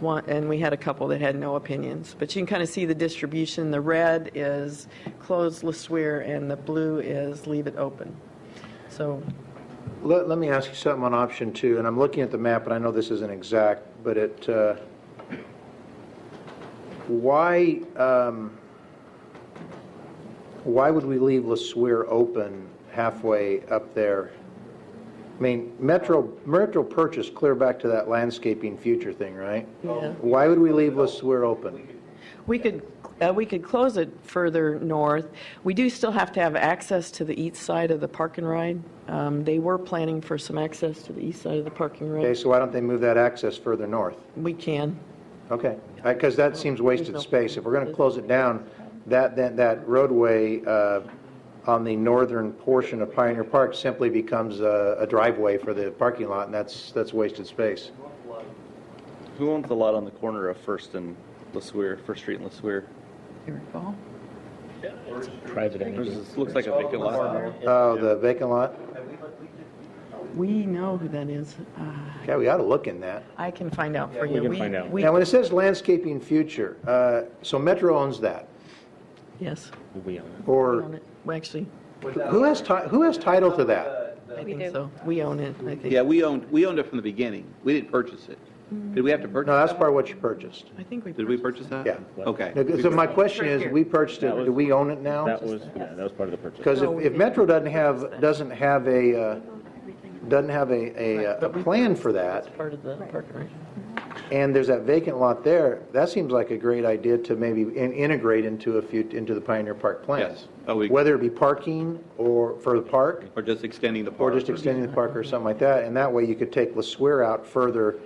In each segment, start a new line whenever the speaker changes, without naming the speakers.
one, and we had a couple that had no opinions. But you can kind of see the distribution. The red is close Le Sueur, and the blue is leave it open. So
Let, let me ask you something on option two, and I'm looking at the map, and I know this isn't exact, but it, uh, why, um, why would we leave Lesueur open halfway up there? I mean, Metro, Metro purchased clear back to that landscaping future thing, right?
Yeah.
Why would we leave Lesueur open?
We could, uh, we could close it further north. We do still have to have access to the east side of the park and ride. Um, They were planning for some access to the east side of the park and
Okay,
ride.
so why don't they move that access further north?
We can.
Okay, because that seems wasted space. If we're going to close it down, that, that, that roadway uh, on the northern portion of Pioneer Park simply becomes a a driveway for the parking lot, and that's, that's wasted space.
Who owns the lot on the corner of First and Lesueur, First Street and Lesueur?
private
There's
entity.
this- Looks like a vacant lot.
Oh, the vacant lot?
We know who that is. Uh,
Yeah, we ought to look in that.
I can find out for you.
can find out.
we-
Now, when it says landscaping future, uh, so Metro owns that,
Yes,
We own it.
we own
or
it. Well, actually,
who has, ti- who has title to that?
I think so. We own it, I think.
Yeah, we owned, we owned it from the beginning. We didn't purchase it. Did we have to purchase?
No, that's
that?
part of what you purchased.
I think we.
Did we purchase that?
Yeah.
Okay.
So my question is, we purchased it, do we own it now?
That was, yeah, that was part of the purchase.
Because
No, we
if, if
didn't.
Metro doesn't have, doesn't have a, uh, doesn't have a, a, a plan for that,
Part of the park and ride.
and there's that vacant lot there, that seems like a great idea to maybe in- integrate into a few, into the Pioneer Park plan.
Yes. Oh, we-
Whether it be parking or for the park,
Or just extending the
or
park.
just extending the park or something like that, and that way you could take La Sueur out further,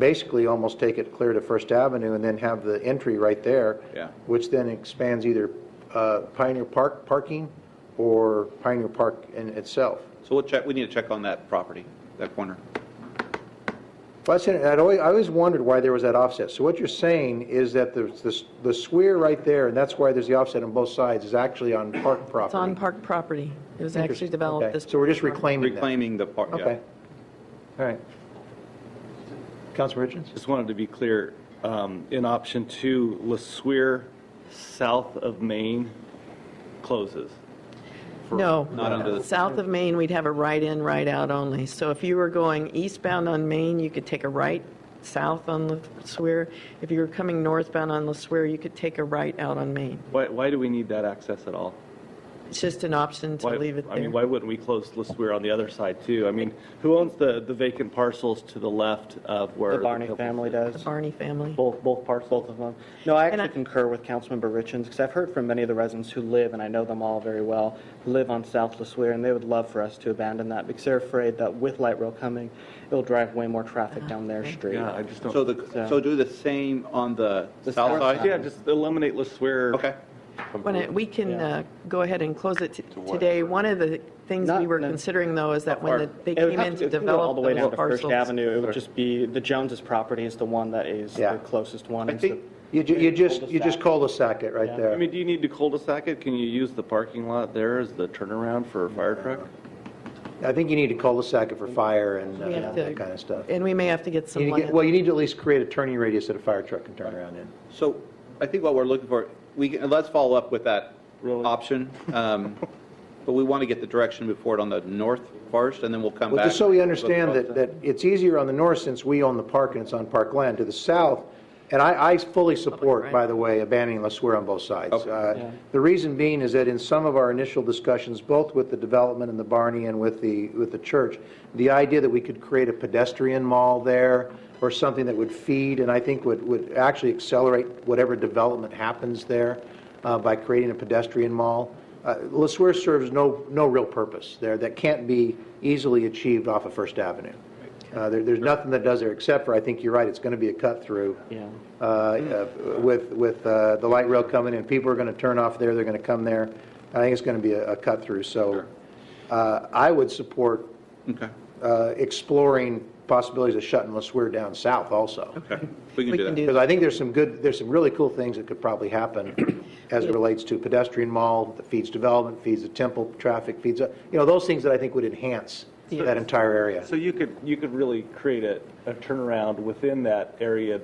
basically almost take it clear to First Avenue and then have the entry right there.
Yeah.
Which then expands either uh, Pioneer Park parking or Pioneer Park in itself.
So we'll check, we need to check on that property, that corner.
Well, that's it. I'd always, I always wondered why there was that offset. So what you're saying is that the, the, the square right there, and that's why there's the offset on both sides, is actually on park property.
It's on park property. It was actually
Okay.
developed this.
So we're just reclaiming that.
Reclaiming the park, yeah.
Okay. All right. Councilman Richards?
Just wanted to be clear, um, in option two, Lesueur, south of Maine, closes.
No.
Not under the-
South of Maine, we'd have a right-in, right-out only. So if you were going eastbound on Maine, you could take a right south on Le Sueur. If you were coming northbound on Le Sueur, you could take a right out on Maine.
Why, why do we need that access at all?
It's just an option to
Why-
leave it
I mean,
there.
why wouldn't we close Lesueur on the other side too? I mean, who owns the, the vacant parcels to the left of where?
The Barney
Pebble-
family does,
Barney family.
both, both parts, both of them. No, I
And
actually
I-
concur with Councilmember Richens, because I've heard from many of the residents who live, and I know them all very well, who live on South Lesueur, and they would love for us to abandon that, because they're afraid that with light rail coming, it'll drive way more
Ah,
traffic down their street.
Yeah, I just don't.
So the, so do the same on the
The
south
south
side?
Yeah, just eliminate Lesueur.
Okay.
When it- We can
Yeah.
uh, go ahead and close it t- today. One of the things
Not-
we were
no.
considering, though, is that when the- they
It would
came
have
in
to-
to
it could go all
develop
the way down
those
to First
parcels.
Avenue, it would just be, the Jones's property is the one that is
Yeah.
the closest one.
I
It's the-
think-
You, ju- you just, you just
Cul-de-sac.
cul-de-sac it right
Yeah.
I
there.
mean, do you need to cul-de-sac it? Can you use the parking lot there as the turnaround for a fire truck?
I think you need to cul-de-sac it for fire and uh,
We have
that
to-
kind of stuff.
And we may have to get
You
some
need to
land.
get- Well, you need to at least create a turning radius that a fire truck can turn around in.
So I think what we're looking for, we, can- let's follow up with that
Really?
option. Um, But we want to get the direction before it on the north first, and then we'll come
Well,
back.
just so we understand that, that it's easier on the north since we own the park and it's on park land. To the south, and I, I fully support, by the way, abandoning La Sueur on both sides.
Okay.
Uh, The reason being is that in some of our initial discussions, both with the development in the Barney and with the, with the church, the idea that we could create a pedestrian mall there or something that would feed and I think would, would actually accelerate whatever development happens there uh, by creating a pedestrian mall. Uh, La Sueur serves no, no real purpose there that can't be easily achieved off of First Avenue. Uh, there, there's nothing that does there except for, I think you're right, it's going to be a cut through
Yeah.
uh, uh, with, with uh, the light rail coming in. People are going to turn off there, they're going to come there. I think it's going to be a, a cut through. So uh, I would support
Okay,
uh, exploring possibilities of shutting Lesueur down south also.
okay. We
We can
can do that.
do
Because I think there's some good, there's some really cool things that could probably happen as it relates to pedestrian mall, that feeds development, feeds the temple, traffic feeds, uh, you know, those things that I think would enhance that entire area.
So you could, you could really create a, a turnaround within that area